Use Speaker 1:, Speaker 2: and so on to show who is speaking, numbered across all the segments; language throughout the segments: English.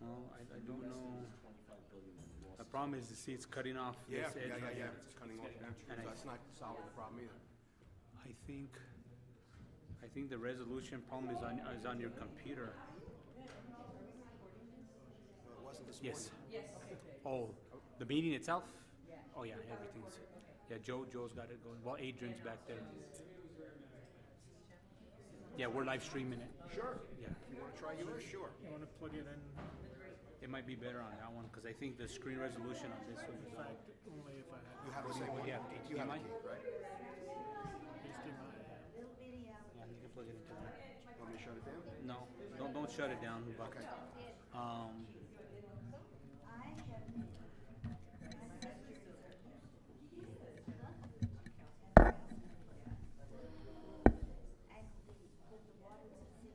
Speaker 1: No, I, I don't know.
Speaker 2: Twenty-five billion in
Speaker 1: The
Speaker 2: losses.
Speaker 1: problem is the sea, it's cutting off
Speaker 3: Yeah,
Speaker 1: this
Speaker 3: yeah,
Speaker 1: edge
Speaker 3: yeah,
Speaker 1: right
Speaker 3: yeah,
Speaker 1: here.
Speaker 3: it's cutting off, yeah, so
Speaker 1: And I-
Speaker 3: that's not solving the problem either.
Speaker 1: I think, I think the resolution problem is on, is on your computer.
Speaker 3: Well, it wasn't this morning.
Speaker 1: Yes. Yes. Oh, the meeting itself? Yeah. Oh, yeah, everything's, yeah, Joe, Joe's got it going. Well, Adrian's back there. Yeah, we're live streaming it.
Speaker 3: Sure,
Speaker 1: Yeah.
Speaker 3: you wanna try yours, sure.
Speaker 4: You want to plug it in,
Speaker 1: It might be better on that one, because I think the screen resolution on this one
Speaker 4: in
Speaker 1: is on.
Speaker 4: fact, only if I had
Speaker 3: You have the same one,
Speaker 1: Yeah.
Speaker 3: you have a
Speaker 1: Mine?
Speaker 3: key, right?
Speaker 4: HDMI.
Speaker 5: Little video.
Speaker 1: Yeah, you can plug it into there.
Speaker 3: Want me to shut it down?
Speaker 1: No, don't, don't shut it down, but, um,
Speaker 5: I have. my sister's- I believe that the water was sitting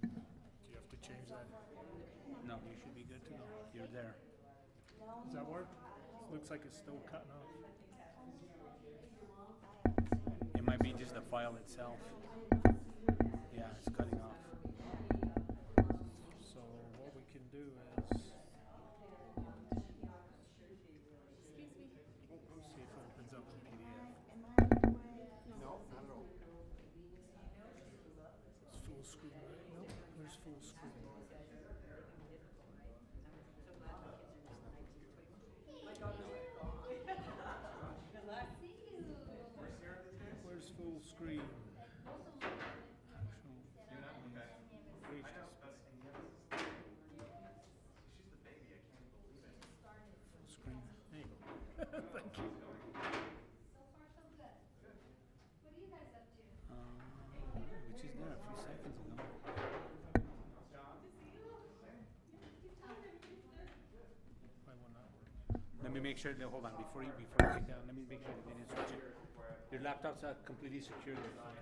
Speaker 4: Do you have to change that?
Speaker 1: no, you should be good to go. You're there.
Speaker 4: Does that work? Looks like it's still cutting off.
Speaker 1: It might be just the file itself. Yeah, it's cutting off.
Speaker 4: So what we can do is. Oh, See if it opens up in PDF.
Speaker 3: No, not at all.
Speaker 4: It's full screen, right? Nope, there's full screen. Where's full screen? Reach this. Full screen. There you go. Thank you.
Speaker 1: Uh, which is there a few seconds ago.
Speaker 4: Why will not work?
Speaker 1: Let me make sure. That, hold on, before you before you take down, let me make sure they didn't switch it. Your laptops are completely secure.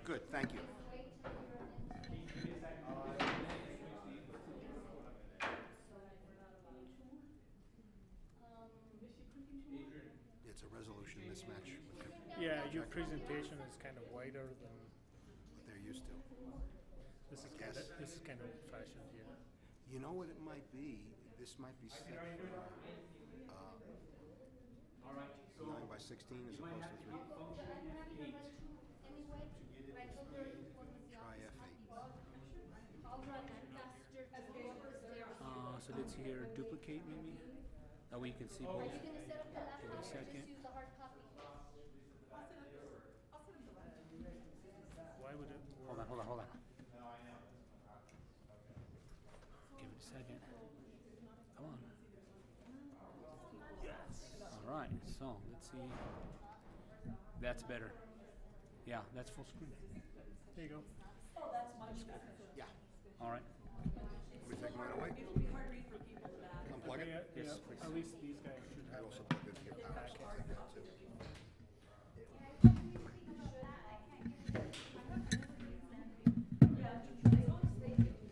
Speaker 3: Good, thank you. It's a resolution mismatch with what
Speaker 4: Yeah, your presentation is kind of wider than,
Speaker 3: they're used to.
Speaker 4: this is kind
Speaker 3: Yes.
Speaker 4: of, this is kind of old fashioned here.
Speaker 3: You know what it might be? This might be set for, uh, nine by sixteen as opposed to three. Try F eight.
Speaker 1: Uh, so let's here duplicate maybe. That way you can see both. Give it a second.
Speaker 4: Why would it work?
Speaker 1: Hold on, hold on, hold on. Give it a second. Come on. Yes. All right, so let's see. That's better. Yeah, that's full screen.
Speaker 4: There you go.
Speaker 3: Yeah.
Speaker 1: All right.
Speaker 3: Let me take mine away.
Speaker 6: It'll be hard read for people to that.
Speaker 3: Unplug
Speaker 4: Yeah,
Speaker 3: it.
Speaker 4: yeah,
Speaker 1: Yes, please.
Speaker 4: at least these guys should
Speaker 3: I
Speaker 4: have
Speaker 3: also
Speaker 4: it.
Speaker 3: plugged in here. I also take that too.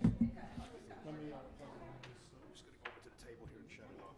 Speaker 4: Let me, uh, plug it in this,
Speaker 3: I'm just gonna go over to the table here and shut it off.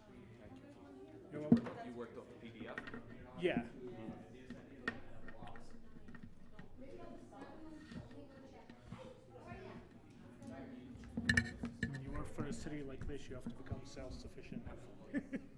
Speaker 4: uh, you know what?
Speaker 2: You worked off the PDF?
Speaker 4: Yeah. When you work for a city like this, you have to become self-sufficient.